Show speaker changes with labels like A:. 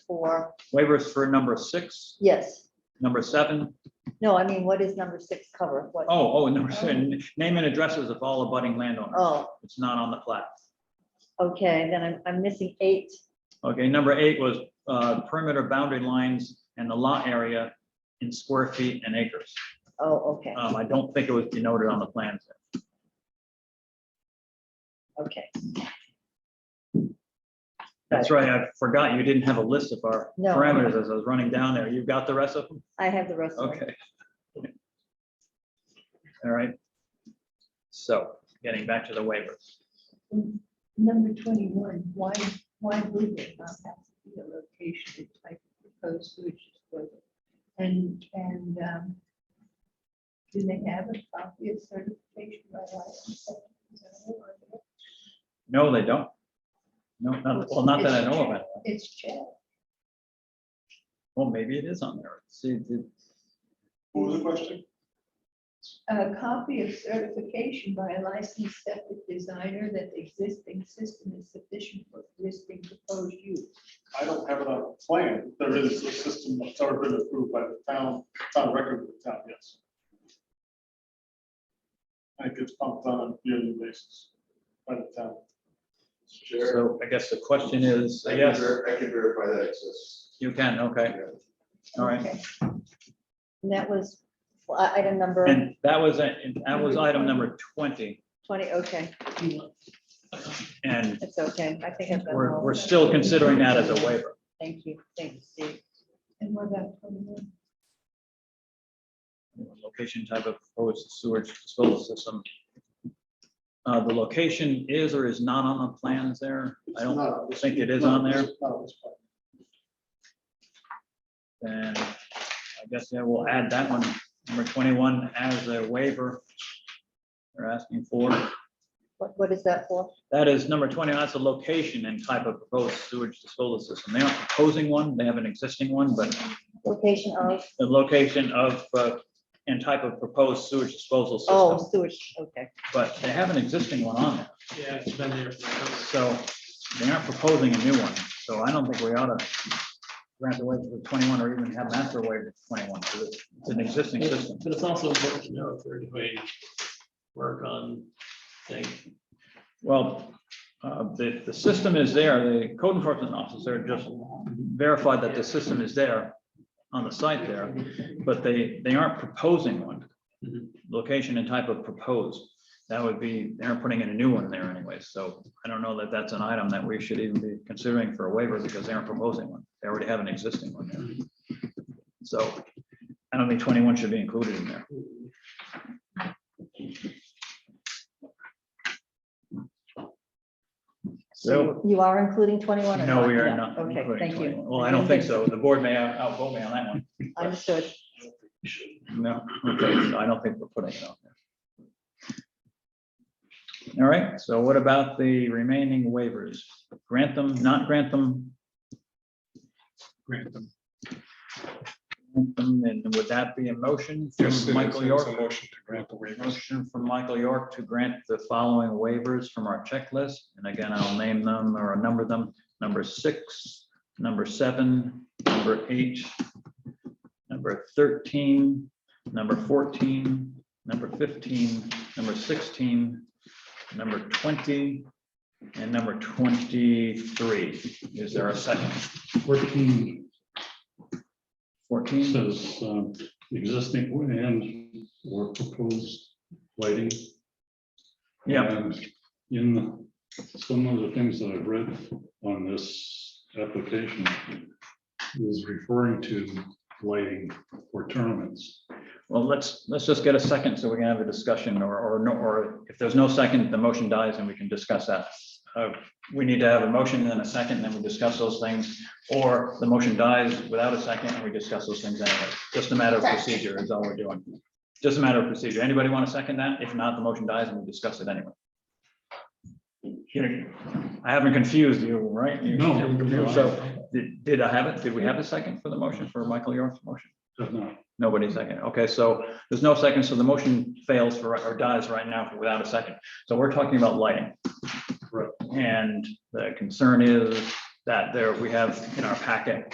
A: for,
B: Waivers for number six,
A: yes,
B: number seven.
A: no, I mean, what is number six cover? What,
B: Oh, oh, and number seven, name and addresses of all abutting landowners.
A: oh,
B: It's not on the plat.
A: okay, then I'm, I'm missing eight.
B: Okay, number eight was uh, perimeter boundary lines and the lot area in square feet and acres.
A: Oh, okay,
B: Um, I don't think it was denoted on the plans.
A: okay,
B: That's right, I forgot you didn't have a list of our
A: No.
B: parameters as I was running down there. You've got the rest of them?
A: I have the rest of it.
B: Okay. All right. So getting back to the waivers.
C: Number twenty-one, why, why would it not have to be a location type proposed sewage disposal? And, and, um, do they have a copy of certification by license?
B: No, they don't. No, not, well, not that I know of. it.
C: It's checked.
B: Well, maybe it is on there. See, the-
D: What was the question?
C: A copy of certification by a licensed septic designer that the existing system is sufficient for existing proposed use.
D: I don't have it on a plan. There is a system that's already been approved by the town, it's on record with the town, yes. And it gets pumped on a yearly basis by the town.
E: Chair.
B: so I guess the question is,
E: I can
B: yes,
E: ver- I can verify that exists.
B: you can, okay, all right.
A: Okay. And that was well, i- item number
B: And that was, a- and that was item number twenty,
A: twenty, okay,
B: and
A: that's okay, I think I've got them
B: we're,
A: all.
B: we're still considering that as a waiver.
A: Thank you, thanks, Steve.
C: And what about twenty-one?
B: Location type of proposed sewage disposal system. Uh, the location is or is not on the plans there. I don't think it is on there. And I guess, yeah, we'll add that one, number twenty-one, as a waiver. They're asking for,
A: What, what is that for?
B: that is number twenty, that's the location and type of proposed sewage disposal system. They aren't proposing one, they have an existing one, but
A: Location oh, of,
B: the location of uh, and type of proposed sewage disposal system.
A: oh, sewage, okay,
B: But they have an existing one on there,
F: Yeah, it's been there forever.
B: so they aren't proposing a new one, so I don't think we ought to grant the waiver for twenty-one or even have an after waiver for twenty-one, because it's it's an existing system.
F: But it's also important to know if we're doing work on things.
B: Well, uh, the, the system is there. The code enforcement officer just verified that the system is there on the site there, but they, they aren't proposing one.
F: Mhm.
B: Location and type of proposed. That would be, they're putting in a new one there anyway. So I don't know that that's an item that we should even be considering for a waiver because they aren't proposing one. They already have an existing one there. So I don't think twenty-one should be included in there. So
A: you are including twenty-one? or
B: no, we are
A: Yeah,
B: not.
A: Okay,
B: including
A: thank you.
B: 21. Well, I don't think so. The board may out- outvote me on that one.
A: Understood.
B: No, okay, so I don't think we're putting it on there. All right, so what about the remaining waivers? Grant them, not grant them? Grant them. Grant them, And would that be a motion from Michael York?
D: motion to grant the waivers.
B: Motion from Michael York to grant the following waivers from our checklist. And again, I'll name them or number them. Number six, number seven, number eight, number thirteen, number fourteen, number fifteen, number sixteen, number twenty, and number twenty-three. Is there a second?
G: Fourteen
B: Fourteen?
G: says um, existing and or proposed lighting.
B: Yeah,
G: And In some of the things that I've read on this application is referring to lighting for tournaments.
B: well, let's, let's just get a second so we can have a discussion or, or no, or if there's no second, the motion dies and we can discuss that. Uh, We need to have a motion and then a second, and then we discuss those things, or the motion dies without a second and we discuss those things anyway. Just a matter of procedure is all we're doing. Just a matter of procedure. Anybody want to second that? If not, the motion dies and we discuss it anyway. You- I haven't confused you, right? You-
G: No.
B: So did, did I have it? Did we have a second for the motion for Michael York's motion?
G: Does not.
B: Nobody second. Okay, so there's no second, so the motion fails for, or dies right now without a second. So we're talking about lighting.
G: Right.
B: And the concern is that there, we have in our packet